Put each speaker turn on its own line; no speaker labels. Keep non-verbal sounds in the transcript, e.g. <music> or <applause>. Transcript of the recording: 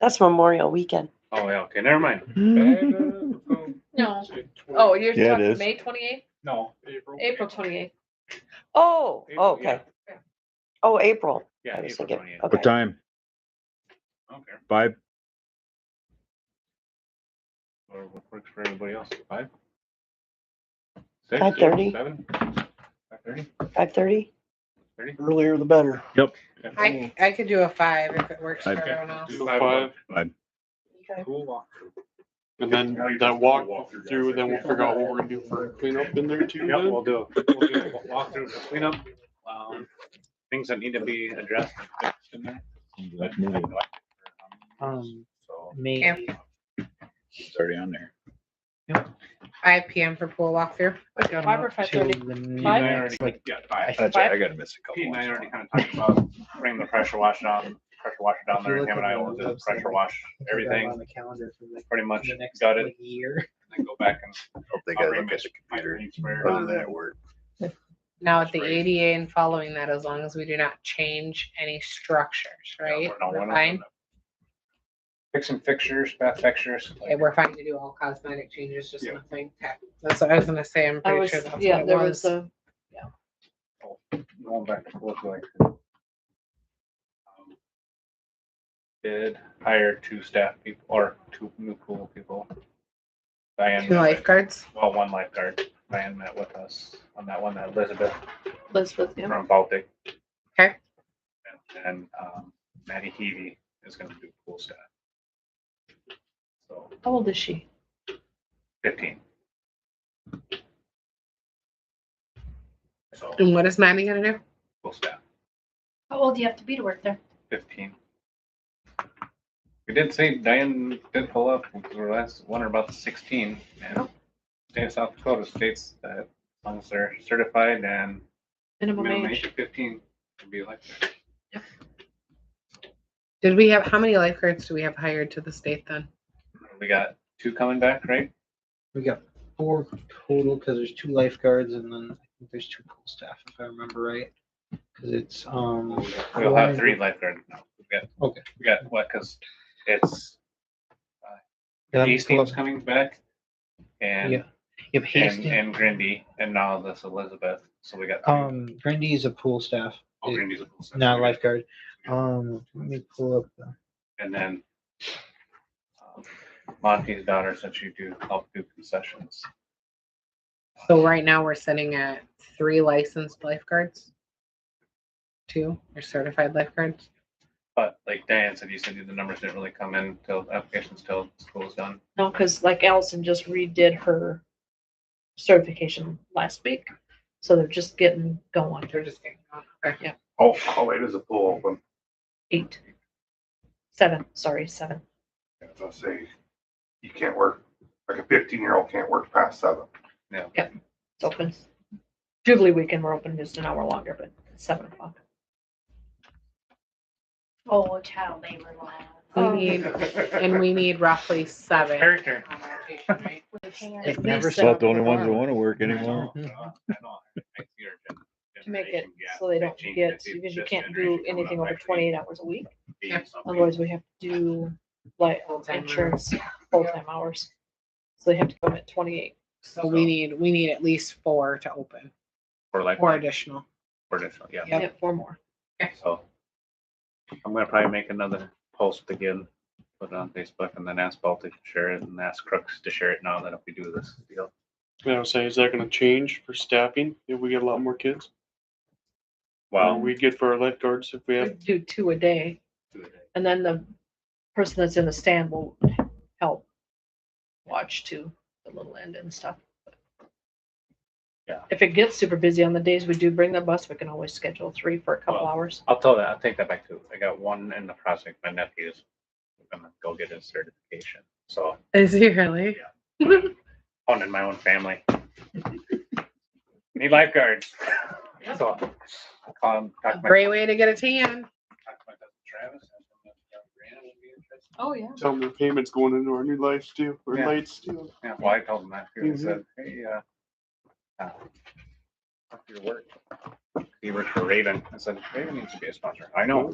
That's Memorial Weekend.
Oh, yeah, okay, never mind. <laughs>
No. Oh,
Oh.
you're
Yeah, it
talking
is.
May twenty-eighth,
No, April.
April twenty-eighth,
Oh,
April,
oh, okay.
yeah.
Oh, April.
Yeah,
I was
April
thinking,
twenty-eighth.
okay.
What time?
Okay.
Five?
Or what works for everybody else, five?
Five thirty.
Five thirty?
Five thirty?
Earlier the better.
Yep.
I, I could do a five if it works for
I've-
everyone else.
Five,
Okay.
and then that walk through, then we'll figure out what we're gonna do for cleanup in there too.
Yep,
then.
we'll do, we'll do a walkthrough, for cleanup, um, things that need to be addressed. and fixed in there.
That's needed.
Um,
So,
May,
It's already on there.
Five PM for pool walkthrough.
I got
Five or
up to
5:30?
the
Pete and I
next,
already,
like,
yeah, five.
That's right, I gotta miss a
Pete
couple.
and I already
ones.
kind of talked about bringing the pressure wash down, pressure washer down
If you
there,
look
him and
at
I
the
will do the
website,
pressure wash,
On
everything,
the calendar for like
pretty much
the next
got it,
like, year. <laughs>
and then go back and.
Hope They gotta look at the computer.
Um,
Other than that, work.
Now at the
Right.
ADA and following that, as long as we do not change any structures, right? We're fine.
Fixing fixtures, bath fixtures.
Yeah, we're fine to do all cosmetic changes, just
Yeah.
nothing. tech. That's what I was gonna say. I'm
I
pretty
was,
sure that's what
yeah,
it
there was
was.
a,
Going back to look like. Did hire two staff people or two new pool people. Diane,
Two
met with-
lifeguards.
well, one lifeguard, Diane met with us on that one, that Elizabeth
Elizabeth, yeah.
from Baltic.
Okay.
And and, um, Maddie Heavy is gonna do pool staff. So
how old is she?
fifteen.
Mm.
So
And what is Maddie gonna do?
pool staff.
How old do you have to be to work there?
fifteen. We did say Diane did pull up, we were last wondering about the sixteen, and
Oh.
state of South Dakota states that as long as they're certified and
Minimum
minimum
age.
age of fifteen to be elected.
Did we have, how many lifeguards do we have hired to the state then?
We got two coming back, right?
We got four total, because there's two lifeguards and then I think there's two pool staff, if I remember right. Because it's, um,
We'll have three lifeguards now. We got,
Okay.
we got what, cause it's
yeah,
East
pull up-
team's coming back. And,
um, Yeah. you have
and,
Hastings,
and Grindy, and now this Elizabeth, so we got. three.
um, Grindy is a pool staff,
Oh, Grindy's a full set.
not a lifeguard. Um, let me pull up. the-
And then um, Monty's daughter said she do help do concessions.
So right now we're sitting at three licensed lifeguards. Two or certified lifeguards.
But like Diane said, you said the numbers didn't really come in till applications till school's done.
No, because like Allison just redid her certification last week, so they're just getting going.
They're just getting on. Okay.
Oh, oh, it is a pool open.
Eight. Seven, sorry, seven.
As I say, you can't work, like a fifteen year old can't work past seven.
It's open. Jubilee weekend, we're open just an hour longer, but it's seven o'clock.
Oh, child labor law.
We need, and we need roughly seven.
Character.
on rotation, right?
At
It never
least
Not
stopped.
seven
the only
o'clock
ones that wanna work
I know,
<laughs>
anymore.
uh, I know, I know. I see your gen-
To make it
generation gap,
so they don't
15,
get,
50,
because you
this
can't do
generation coming
anything
up
over
actually
twenty-eight hours a week,
being something.
otherwise we have to do like
Full-time hours.
insurance, full-time hours. So they have to come at twenty-eight.
So we need, we need at least four to open,
Or like,
four additional.
or additional, yeah.
Yep.
Yeah, Four more.
So I'm gonna probably make another post again, put it on Facebook and then ask Baltic to share it and ask Crooks to share it now that if we do this deal.
And I would say, is that gonna change for staffing if we get a lot more kids? Or
Well,
We'd get for our lifeguards if we have,
Do two a day. And then the person that's in the stand will help watch to the little end and stuff.
Yeah.
If it gets super busy on the days we do bring the bus, we can always schedule three for a couple
Well,
hours.
I'll tell that, I'll take that back too. I got one in the project, my nephew's gonna go get his certification, so
Is he really?
one in my own family. Need lifeguards. So, um, talk to my-
Great way to get a tan.
talk to my cousin Travis, ask him if, uh, Brianna would be interested.
Oh, yeah.
tell them the payments going into our new lights too, or
Yeah.
lights too.
Yeah, well, I told him that too. I
Mhm.
said, hey, uh, uh, fuck your work. He worked for Raven. I said, Raven needs to be a sponsor. I know.